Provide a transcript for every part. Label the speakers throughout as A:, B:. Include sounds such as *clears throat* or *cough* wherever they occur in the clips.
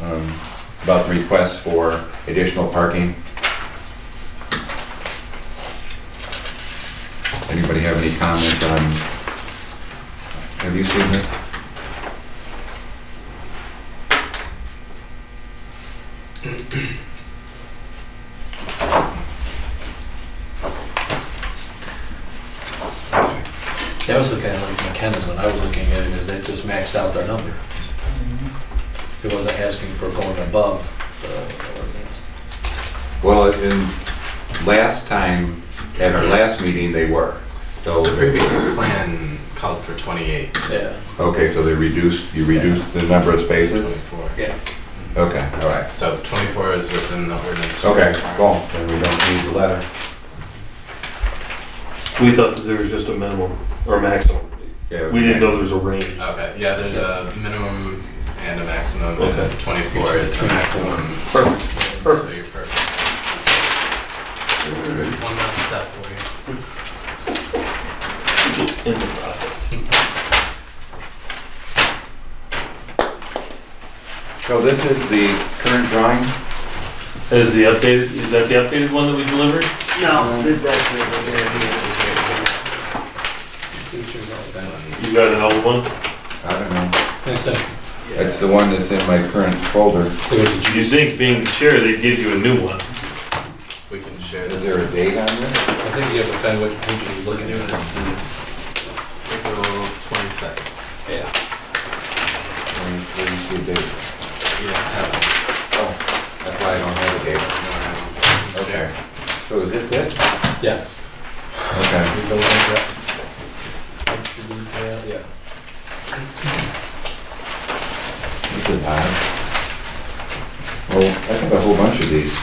A: um, about the request for additional parking. Anybody have any comment on, have you seen this?
B: That was looking at like McKenna's when I was looking at it, is that just maxed out their number. It wasn't asking for going above uh, the ordinance.
A: Well, in, last time, at our last meeting, they were. So,
C: The previous plan called for 28,
B: Yeah,
A: okay, so they reduced, you reduced the number of spaces?
C: 24.
B: yeah.
A: Okay, all right.
C: So 24 is within the ordinance.
A: Okay, well,
C: requirements.
A: then we don't need the letter.
D: We thought that there was just a minimum or maximum.
A: Yeah,
D: We didn't know there was a range.
C: Okay, yeah, there's a minimum and a maximum, and
D: Okay.
C: 24 is the maximum.
D: Perfect.
C: So you're perfect. One last step for you.
D: In the process.
A: So this is the current drawing?
D: Is the updated, is that the updated one that we delivered?
E: No, that's it.
C: It's right here, it's right here. That one.
D: You got an old one?
A: I don't know.
B: Next time,
A: That's the one that's in my current folder.
B: look at the
D: You think being chair, they'd give you a new one?
C: We can share
A: Is
C: this.
A: there a date on this?
B: I think you have to find what page you're
C: Look at
B: looking at.
C: this, is April 22nd.
B: Yeah.
A: Let me- let me see the date.
C: Yeah, that one.
A: Oh, that's why I don't have a
C: Okay.
A: date. Okay. So is this it?
B: Yes.
A: Okay.
B: We go with that. Yeah.
A: This is odd. Well, I have a whole bunch of these. Does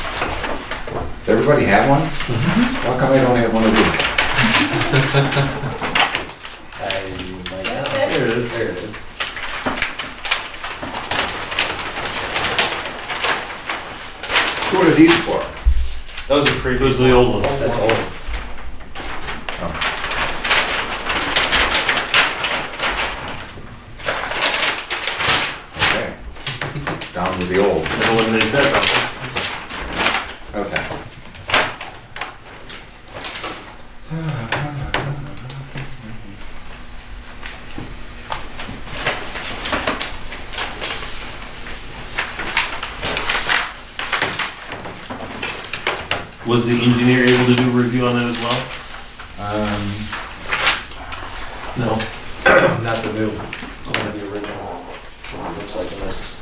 A: everybody have one? How come I don't have one of these?
B: I might not.
E: That's it.
B: There it is, there it is.
A: Who are these for?
D: That was a pre, it was the old one.
B: That's old.
A: Okay. Down with the old.
D: It eliminates that
A: Okay.
D: problem. Was the engineer able to do a review on that as well?
A: Um,
B: No, *clears throat* not the new, only the original. Looks like in this.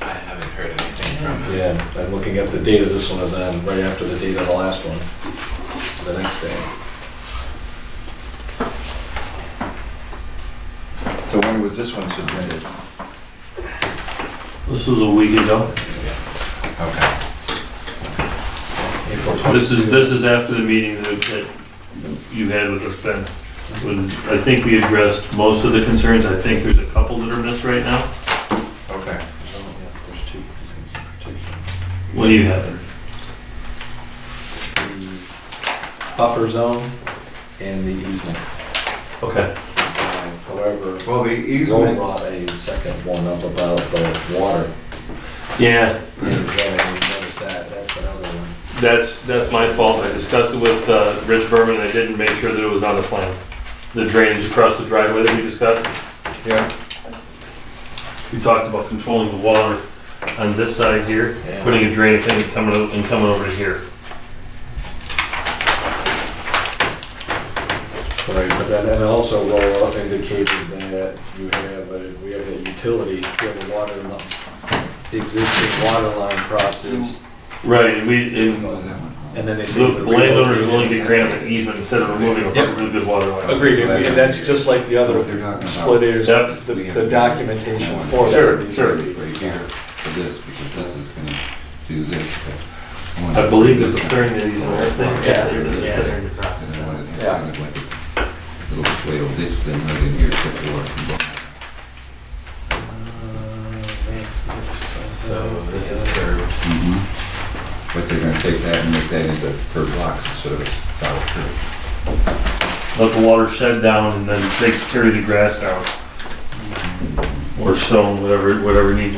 C: I haven't heard anything from him.
B: Yeah, I'm looking at the date of this one, is on right after the date of the last one, the next day.
A: so when was this one submitted?
D: This was a week ago.
A: Okay.
B: April Oh,
D: This is,
B: 22.
D: this is after the meeting that, that you had with us, Ben. When- I think we addressed most of the concerns. I think there's a couple that are missed right now.
A: Okay.
B: Oh, yeah, there's two.
D: What do you have there?
B: The Buffer zone and the easement.
D: Okay.
B: However,
A: Well, the
B: Roe
A: easement,
B: brought a second one up about the water.
D: Yeah,
B: Yeah, I noticed that, that's another one.
D: That's, that's my fault. I discussed it with uh, Rich Berman, and I didn't make sure that it was on the plan. The drainage across the driveway that we discussed,
A: yeah,
D: we talked about controlling the water on this side here,
B: Yeah.
D: putting a drain thing and coming, o- and coming over to here.
B: Right, but then, and also Roe up indicated that you have, a- we have a utility, we have a water line. The existing water line crosses,
D: Right, and we, and
A: what was that one?
B: and then they
D: the
B: say.
D: landowner is willing to grant an easement instead of removing a
B: Yep.
D: really good water line.
B: Agreed, and we- and that's just like the
A: What
B: other
A: they're talking about.
B: split is,
D: Yep.
B: the the documentation for that.
D: Sure, sure.
A: Right here for this, because this is gonna do this.
D: I believe there's a clearing that he's on that thing.
B: Yeah.
A: And then when it
B: Yeah.
A: happens, like, It'll sway over this, then right in here, except for.
C: So this is curved.
A: But they're gonna take that and make that into per blocks instead of a solid curve.
D: Let the water shed down and then they carry the grass down. Or stone, whatever, whatever needs to be